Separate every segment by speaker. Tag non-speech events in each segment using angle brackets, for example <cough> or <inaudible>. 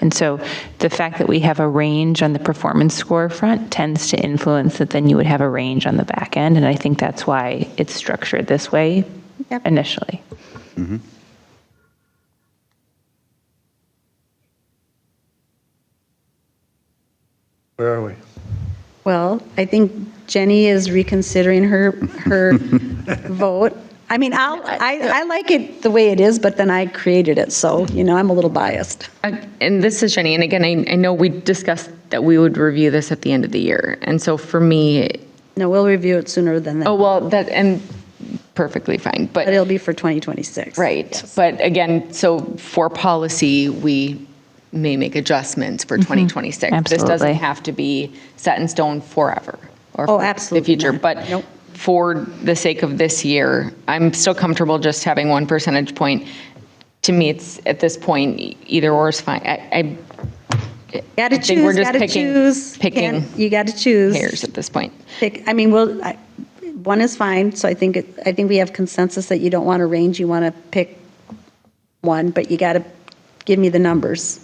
Speaker 1: And so the fact that we have a range on the performance score front tends to influence that then you would have a range on the back end. And I think that's why it's structured this way
Speaker 2: Yep.
Speaker 1: initially.
Speaker 3: Where are we?
Speaker 2: Well, I think Jenny is reconsidering her, her vote. I mean, I'll, I, I like it the way it is, but then I created it, so, you know, I'm a little biased.
Speaker 4: I- Uh, And this is Jenny, and again, I, I know we discussed that we would review this at the end of the year. And so for me,
Speaker 2: No, we'll review it sooner than
Speaker 4: oh,
Speaker 2: that,
Speaker 4: well, that, and perfectly fine,
Speaker 2: but it'll be for 2026.
Speaker 4: Right, but again, so for policy, we may make adjustments
Speaker 2: Mm-hmm.
Speaker 4: for 2026. This
Speaker 1: Absolutely.
Speaker 4: doesn't have to be set in stone forever. or
Speaker 2: Oh,
Speaker 4: for
Speaker 2: absolutely
Speaker 4: The future,
Speaker 2: not.
Speaker 4: but
Speaker 2: Nope.
Speaker 4: for the sake of this year, I'm still comfortable just having one percentage point. To me, it's, at this point, e- either or is fine. I, I- I
Speaker 2: Gotta
Speaker 4: think we're
Speaker 2: choose,
Speaker 4: just
Speaker 2: gotta
Speaker 4: picking,
Speaker 2: choose.
Speaker 4: picking
Speaker 2: Can't- You gotta choose.
Speaker 4: hairs at this point.
Speaker 2: Pick, I mean, well, I- one is fine, so I think, it- I think we have consensus that you don't want a range, you want to pick one, but you got to give me the numbers.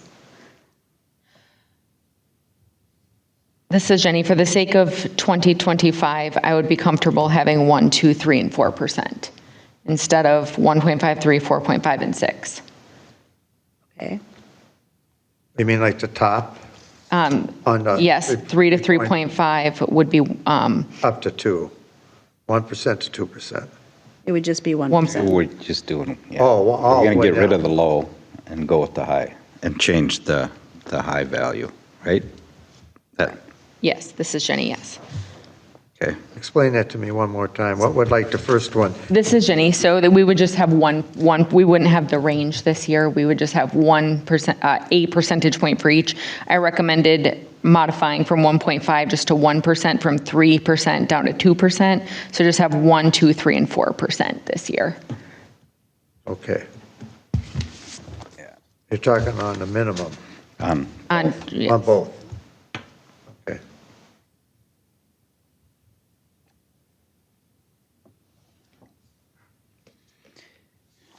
Speaker 4: This is Jenny, for the sake of 2025, I would be comfortable having 1, 2, 3, and 4% instead of 1.5, 3, 4.5, and 6.
Speaker 2: Okay,
Speaker 3: You mean like the top? On the-
Speaker 4: Um, Yes, 3 to 3.5 would be um,
Speaker 3: Up to 2, 1% to 2%.
Speaker 2: it would just be 1%.
Speaker 4: One-
Speaker 5: We're just doing, yeah.
Speaker 3: Oh, well, oh,
Speaker 5: We're going
Speaker 3: well,
Speaker 5: to get rid
Speaker 3: yeah.
Speaker 5: of the low and go with the high and change the, the high value, right? That,
Speaker 4: yes, this is Jenny, yes.
Speaker 5: okay.
Speaker 3: Explain that to me one more time. What would like the first one?
Speaker 4: This is Jenny, so that we would just have one, one, we wouldn't have the range this year, we would just have 1%, uh, a percentage point for each. I recommended modifying from 1.5 just to 1%, from 3% down to 2%, so just have 1, 2, 3, and 4% this year.
Speaker 3: Okay. You're talking on the minimum,
Speaker 5: Um,
Speaker 4: On,
Speaker 3: on both. Okay.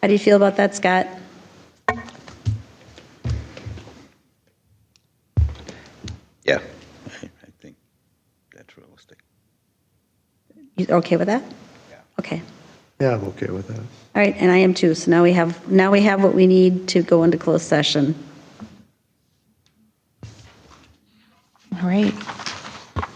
Speaker 2: How do you feel about that, Scott?
Speaker 5: Yeah, I I think that's realistic.
Speaker 2: You okay with that?
Speaker 5: Yeah.
Speaker 2: Okay,
Speaker 3: Yeah, I'm okay with that.
Speaker 2: all right, and I am too, so now we have, now we have what we need to go into closed session.
Speaker 1: All right.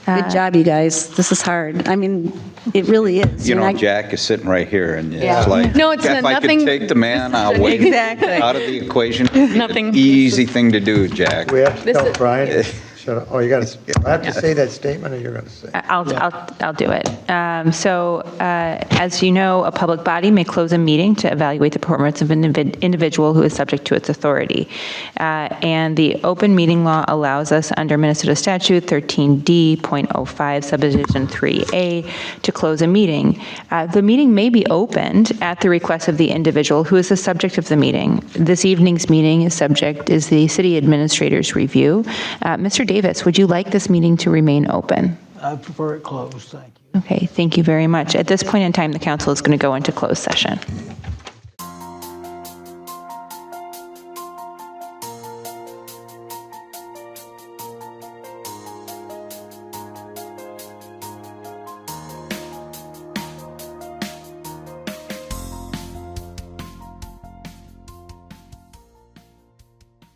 Speaker 2: Good job, you guys, this is hard, I mean, it really is.
Speaker 5: You
Speaker 2: You're
Speaker 5: know,
Speaker 2: not-
Speaker 5: Jack is sitting right here and
Speaker 4: Yeah.
Speaker 5: it's like.
Speaker 4: No, it's
Speaker 5: If I could
Speaker 4: nothing-
Speaker 5: take the
Speaker 4: <laughs>
Speaker 5: man away.
Speaker 2: Exactly.
Speaker 5: Out of the equation. it'd be an
Speaker 4: Nothing.
Speaker 5: Easy thing to do, Jack.
Speaker 3: We have to
Speaker 4: This
Speaker 3: tell
Speaker 4: is- <laughs>
Speaker 3: Brian, shut up. Oh, you got to, I have to say that statement or you're going to say?
Speaker 1: I'll, I'll, I'll do it. Um, So uh, as you know, a public body may close a meeting to evaluate the performance of an individ- individual who is subject to its authority. Uh, And the open meeting law allows us, under Minnesota statute 13D.05 subdivision 3A, to close a meeting. Uh, The meeting may be opened at the request of the individual who is the subject of the meeting. This evening's meeting is subject, is the city administrator's review. Uh, Mr. Davis, would you like this meeting to remain open?
Speaker 6: I prefer it closed, thank you.
Speaker 1: Okay, thank you very much. At this point in time, the council is going to go into closed session.